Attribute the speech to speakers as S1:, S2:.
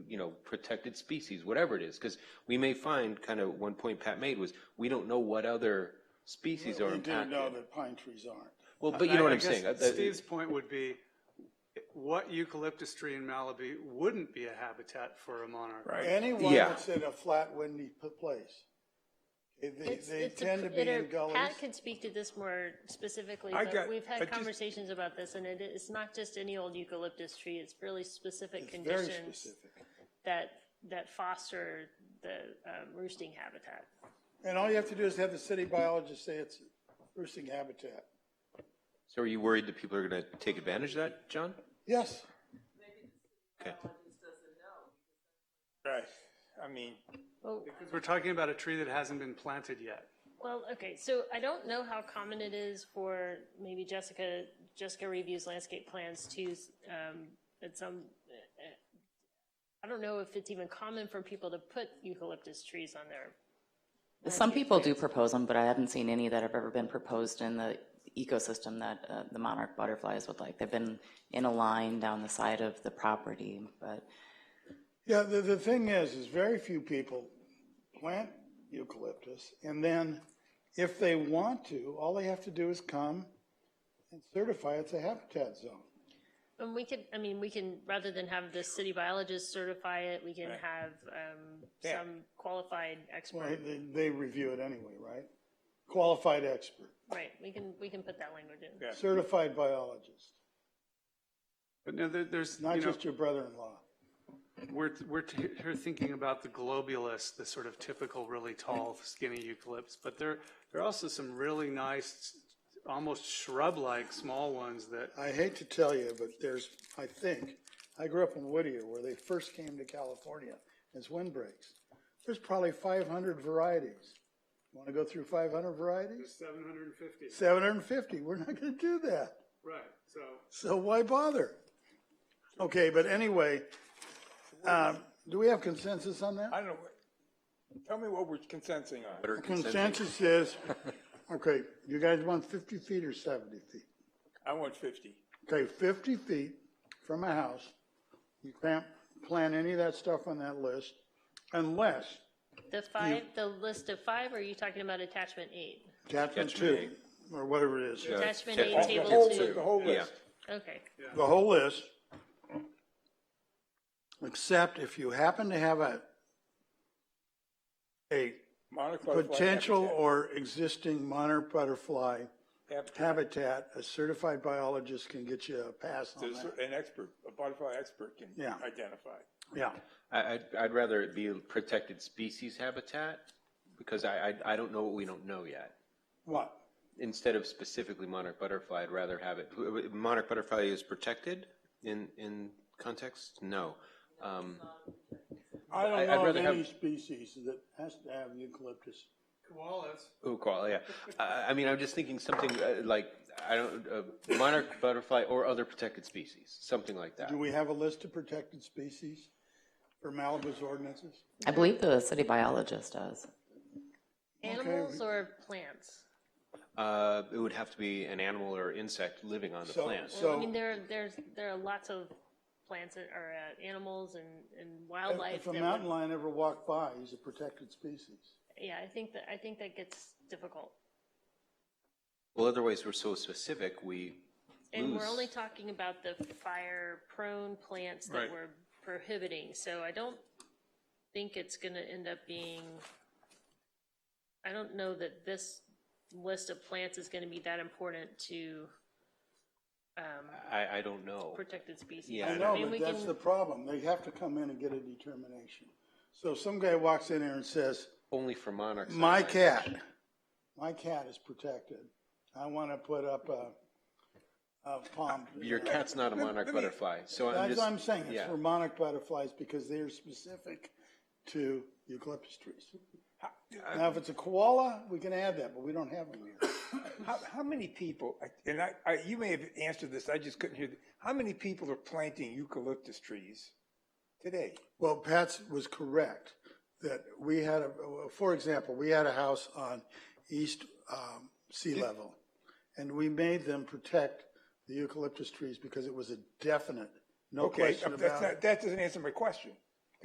S1: you know, protected species, whatever it is, because we may find, kind of one point Pat made was, we don't know what other species are
S2: We do know
S1: impacted.
S2: that pine trees aren't.
S1: Well, but you know
S3: I-
S1: what
S3: I
S1: I'm saying.
S3: guess
S1: uh, that-
S3: Steve's point would be, what eucalyptus tree in Malibu wouldn't be a habitat for a monarch?
S2: Anyone
S1: Yeah.
S2: that's in a flat, windy p- place, they,
S4: It's-
S2: they
S4: it's a
S2: tend to
S4: pr-
S2: be
S4: it are-
S2: in gullies.
S4: Pat could speak to this more specifically,
S5: I
S4: but
S5: got-
S4: we've
S5: I
S4: had
S5: just-
S4: conversations about this, and it, it's not just any old eucalyptus tree, it's really specific
S2: It's very
S4: conditions
S2: specific.
S4: that, that foster the um, roosting habitat.
S2: And all you have to do is have the city biologist say it's roosting habitat.
S1: So are you worried that people are going to take advantage of that, John?
S2: Yes.
S1: Okay.
S5: Right. I mean, Oh.
S4: Well,
S3: Because we're talking about a tree that hasn't been planted yet.
S4: Well, okay, so I don't know how common it is for maybe Jessica, Jessica reviews landscape plans to, um, at some, I don't know if it's even common for people to put eucalyptus trees on their,
S6: Some people do propose them, but I haven't seen any that have ever been proposed in the ecosystem that uh, the monarch butterflies would like. They've been in a line down the side of the property, but
S2: Yeah, the, the thing is, is very few people plant eucalyptus, and then if they want to, all they have to do is come and certify it's a habitat zone.
S4: and we could, I mean, we can, rather than have the city biologist certify it, we can have, um,
S5: Yeah.
S4: some qualified
S2: Well,
S4: expert,
S2: they, they review it anyway, right? Qualified expert,
S4: right, we can, we can put that language in.
S5: Yeah.
S2: certified biologist,
S3: But no, there, there's, you
S2: not
S3: know,
S2: just your brother-in-law.
S3: we're, we're t- here thinking about the globulus, the sort of typical really tall skinny eucalypts, but there, there are also some really nice, almost shrub-like small ones that,
S2: I hate to tell you, but there's, I think, I grew up in Whittier where they first came to California as windbreaks. There's probably 500 varieties. Want to go through 500 varieties?
S3: 750,
S2: 750. We're not going to do that.
S3: right, so.
S2: So why bother? Okay, but anyway, um, do we have consensus on that?
S5: I don't know. Tell me what we're consensing on.
S1: What are consensus?
S2: Consensus is, okay, you guys want 50 feet or 70 feet?
S5: I want 50.
S2: Okay, 50 feet from a house, you can't plant any of that stuff on that list unless
S4: The five, the list of five, or are you talking about attachment eight?
S2: attachment two,
S1: Attachment
S2: or whatever it is.
S4: Attachment
S1: Yeah.
S4: eight,
S5: The
S4: table
S5: whole,
S4: two,
S5: the whole
S1: Yeah.
S5: list.
S4: okay.
S2: The whole list, except if you happen to have a, a
S5: Monarch butterfly
S2: potential
S5: habitat.
S2: or existing monarch butterfly
S5: Habitat.
S2: habitat, a certified biologist can get you a pass on
S5: There's
S2: that.
S5: An expert, a butterfly expert can
S2: Yeah.
S5: identify.
S2: Yeah,
S1: I, I'd, I'd rather it be a protected species habitat because I, I, I don't know what we don't know yet.
S2: what?
S1: Instead of specifically monarch butterfly, I'd rather have it, monarch butterfly is protected in, in context? No. Um,
S2: I
S1: I- I'd
S2: don't know of
S1: rather have-
S2: any species that has to have eucalyptus.
S3: Koalas.
S1: Ooh, koala, yeah. I, I mean, I'm just thinking something uh, like, I don't, uh, monarch butterfly or other protected species, something like that.
S2: Do we have a list of protected species for Malibu's ordinances?
S6: I believe the city biologist does.
S4: Animals or plants?
S1: Uh, it would have to be an animal or insect living on the
S2: So-
S1: plant.
S4: Well, I
S2: So-
S4: mean, there, there's, there are lots of plants that are, uh, animals and, and
S2: If-
S4: wildlife.
S2: If a
S4: that
S2: mountain
S4: would-
S2: lion ever walked by, he's a protected species.
S4: Yeah, I think that, I think that gets difficult.
S1: Well, otherwise, we're so specific, we
S4: And we're
S1: Loose.
S4: only talking about the fire-prone plants that
S3: Right.
S4: we're prohibiting, so I don't think it's gonna end up being, I don't know that this list of plants is gonna be that important to, um,
S1: I, I don't know.
S4: protected species.
S1: Yeah,
S2: I
S1: I
S2: know,
S4: mean, we
S2: but that's
S4: can-
S2: the problem. They have to come in and get a determination. So if some guy walks in here and says,
S1: Only for monarchs.
S2: my cat, my cat is protected. I want to put up a, a palm. tree."
S1: Your cat's not a monarch butterfly, so I'm
S2: That's
S1: just.
S2: what I'm saying. It's
S1: yeah.
S2: for monarch butterflies because they are specific to eucalyptus trees. Now, if it's a koala, we can add that, but we don't have them here.
S5: How, how many people, and I, I, you may have answered this, I just couldn't hear, the- how many people are planting eucalyptus trees today?
S2: Well, Pat's was correct, that we had, a for example, we had a house on east um, sea level, and we made them protect the eucalyptus trees because it was a definite, no
S5: Okay,
S2: question
S5: that's
S2: about
S5: not,
S2: it.
S5: that doesn't answer my question.